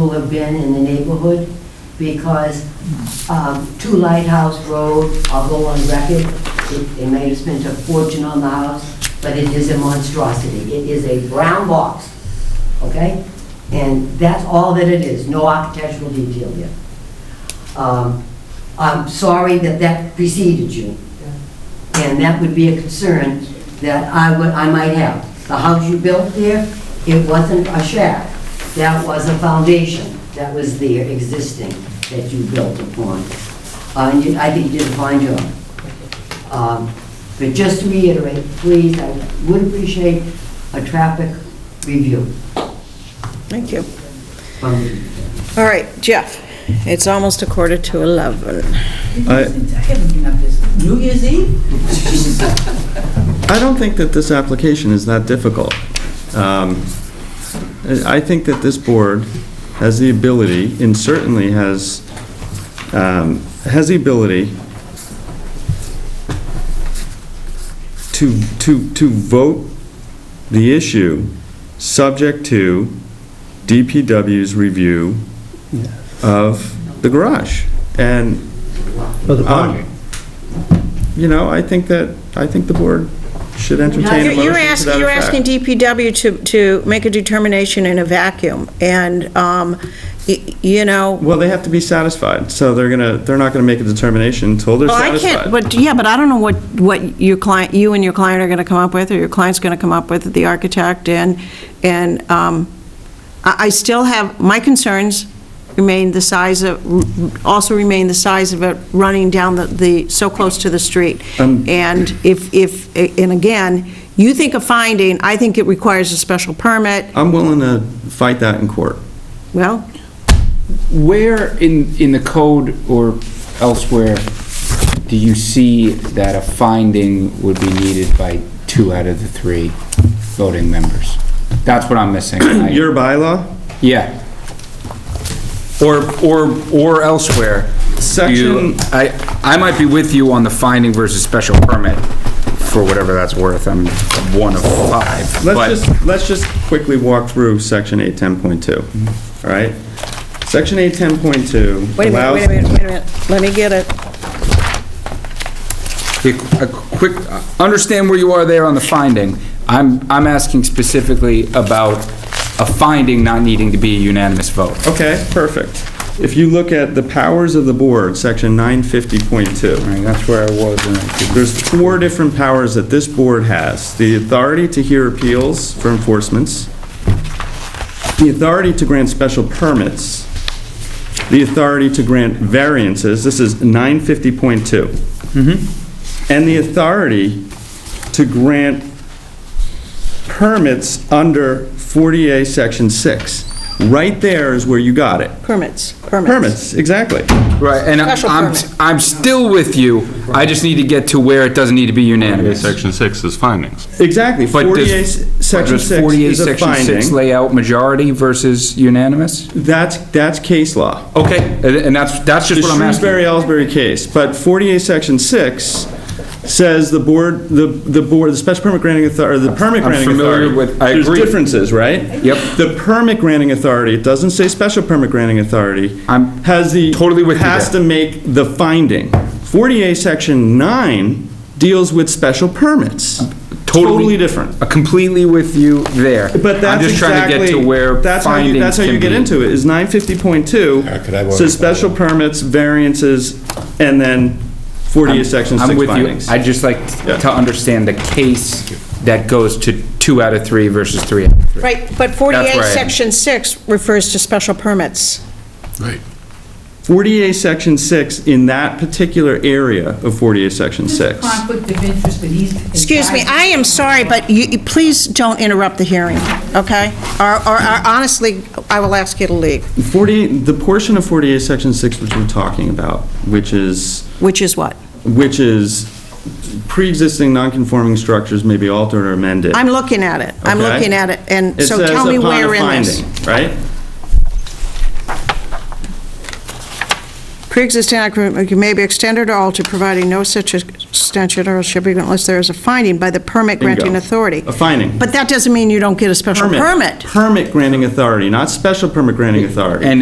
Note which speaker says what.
Speaker 1: who have been in the neighborhood because um, Two Lighthouse Road, I'll go on record, it- they may have spent a fortune on the house, but it is a monstrosity. It is a brown box, okay? And that's all that it is, no architectural detail yet. Um, I'm sorry that that preceded you. And that would be a concern that I would, I might have. The house you built there, it wasn't a shack. That was a foundation that was there existing that you built upon. Uh, And you- I think you did a fine job. Um, But just to reiterate, please, I would appreciate a traffic review
Speaker 2: Thank you.
Speaker 1: from the
Speaker 2: All right, Jeff, it's almost a quarter to 11.
Speaker 3: I-
Speaker 4: I haven't been up this, New Year's Eve?
Speaker 3: I don't think that this application is that difficult. Um, I I think that this board has the ability, and certainly has, um, has the ability to, to, to vote the issue subject to DPW's review of the garage. And
Speaker 5: Of the
Speaker 3: Um,
Speaker 5: project.
Speaker 3: you know, I think that, I think the board should
Speaker 2: You're
Speaker 3: entertain a motion to
Speaker 2: you're
Speaker 3: that
Speaker 2: asking, you're
Speaker 3: effect.
Speaker 2: asking DPW to, to make a determination in a vacuum, and, um, y- you know,
Speaker 3: Well, they have to be satisfied, so they're gonna, they're not gonna make a determination until they're
Speaker 2: well, Oh, I can't,
Speaker 3: satisfied.
Speaker 2: but, yeah, but I don't know what, what your client, you and your client are going to come up with, or your client's going to come up with, the architect, and, and um, I I still have, my concerns remain the size of, also remain the size of it running down the- the, so close to the street.
Speaker 3: Um,
Speaker 2: And if, if, and again, you think a finding, I think it requires a special permit,
Speaker 3: I'm willing to fight that in court.
Speaker 2: well,
Speaker 6: Where in, in the code or elsewhere do you see that a finding would be needed by two out of the three voting members? That's what I'm missing. I-
Speaker 3: Your bylaw,
Speaker 6: Yeah. Or, or, or elsewhere. Do you-
Speaker 3: section,
Speaker 6: I, I might be with you on the finding versus special permit, for whatever that's worth, I'm one of five. but-
Speaker 3: let's just, let's just quickly walk through section eight ten point two, all right? Section eight ten point two
Speaker 2: wait a minute,
Speaker 3: allows.
Speaker 2: wait a minute, wait a minute, let me get it.
Speaker 6: A a quick, understand where you are there on the finding. I'm, I'm asking specifically about a finding not needing to be a unanimous vote.
Speaker 3: Okay, perfect. If you look at the powers of the board, section nine fifty point two.
Speaker 6: All right, that's where I was, and I didn't-
Speaker 3: There's four different powers that this board has. The authority to hear appeals for enforcements, the authority to grant special permits, the authority to grant variances, this is 950.2,
Speaker 6: Mm-hmm.
Speaker 3: and the authority to grant permits under 40A Section 6. Right there is where you got it.
Speaker 2: Permits, permits.
Speaker 3: Permits, exactly.
Speaker 6: right, and
Speaker 2: Special
Speaker 6: I'm,
Speaker 2: permit.
Speaker 6: I'm still with you, I just need to get to where it doesn't need to be unanimous.
Speaker 7: Section 6 is findings.
Speaker 3: Exactly,
Speaker 6: But does-
Speaker 3: 40A Section
Speaker 6: does
Speaker 3: 6 is a
Speaker 6: 48 Section 6
Speaker 3: finding.
Speaker 6: layout majority versus unanimous?
Speaker 3: That's, that's case law.
Speaker 6: Okay, and- and that's, that's just
Speaker 3: The
Speaker 6: what I'm asking.
Speaker 3: Shrewsbury-Ellsbury case, but 48 Section 6 says the board, the, the board, the special permit granting authority, the permit
Speaker 6: I'm
Speaker 3: granting authority.
Speaker 6: familiar with- I agree.
Speaker 3: There's differences, right?
Speaker 6: Yep.
Speaker 3: The permit granting authority, it doesn't say special permit granting authority.
Speaker 6: I'm
Speaker 3: Has the.
Speaker 6: totally with you
Speaker 3: Has to
Speaker 6: there.
Speaker 3: make the finding. 48 Section 9 deals with special permits. Totally different.
Speaker 6: Uh, Completely with you there.
Speaker 3: But that's
Speaker 6: I'm just trying to
Speaker 3: exactly,
Speaker 6: get to where
Speaker 3: that's how you, that's
Speaker 6: findings
Speaker 3: how you
Speaker 6: can
Speaker 3: get
Speaker 6: be-
Speaker 3: into it, is 950.2, says special permits, variances, and then 40 is section 6
Speaker 6: I'm with you.
Speaker 3: findings.
Speaker 6: I'd just like
Speaker 3: Yeah.
Speaker 6: to understand the case that goes to two out of three versus three out of three.
Speaker 2: Right, but
Speaker 6: That's
Speaker 2: 48,
Speaker 6: right.
Speaker 2: Section 6 refers to special permits.
Speaker 3: 48 section 6 in that particular area of 48 section 6.
Speaker 4: Conflict of interest, but he's.
Speaker 2: Excuse me, I am sorry, but you, you- please don't interrupt the hearing, okay? Or, or or honestly, I will ask you to leave,
Speaker 3: 40, the portion of 48 section 6 which we're talking about, which is,
Speaker 2: which is what?
Speaker 3: which is pre-existing non-conforming structures may be altered or amended.
Speaker 2: I'm looking at it, I'm
Speaker 3: okay?
Speaker 2: looking at it, and
Speaker 3: It
Speaker 2: so
Speaker 3: says
Speaker 2: tell me
Speaker 3: upon a
Speaker 2: where in this.
Speaker 3: finding, Right?
Speaker 2: pre-existing occupancy may be extended or altered, providing no such extension or shall be unless there is a finding by the permit
Speaker 3: Bingo.
Speaker 2: granting authority.
Speaker 3: A finding.
Speaker 2: But that doesn't mean you don't get a special permit.
Speaker 3: Permit granting authority, not special permit granting authority.
Speaker 6: And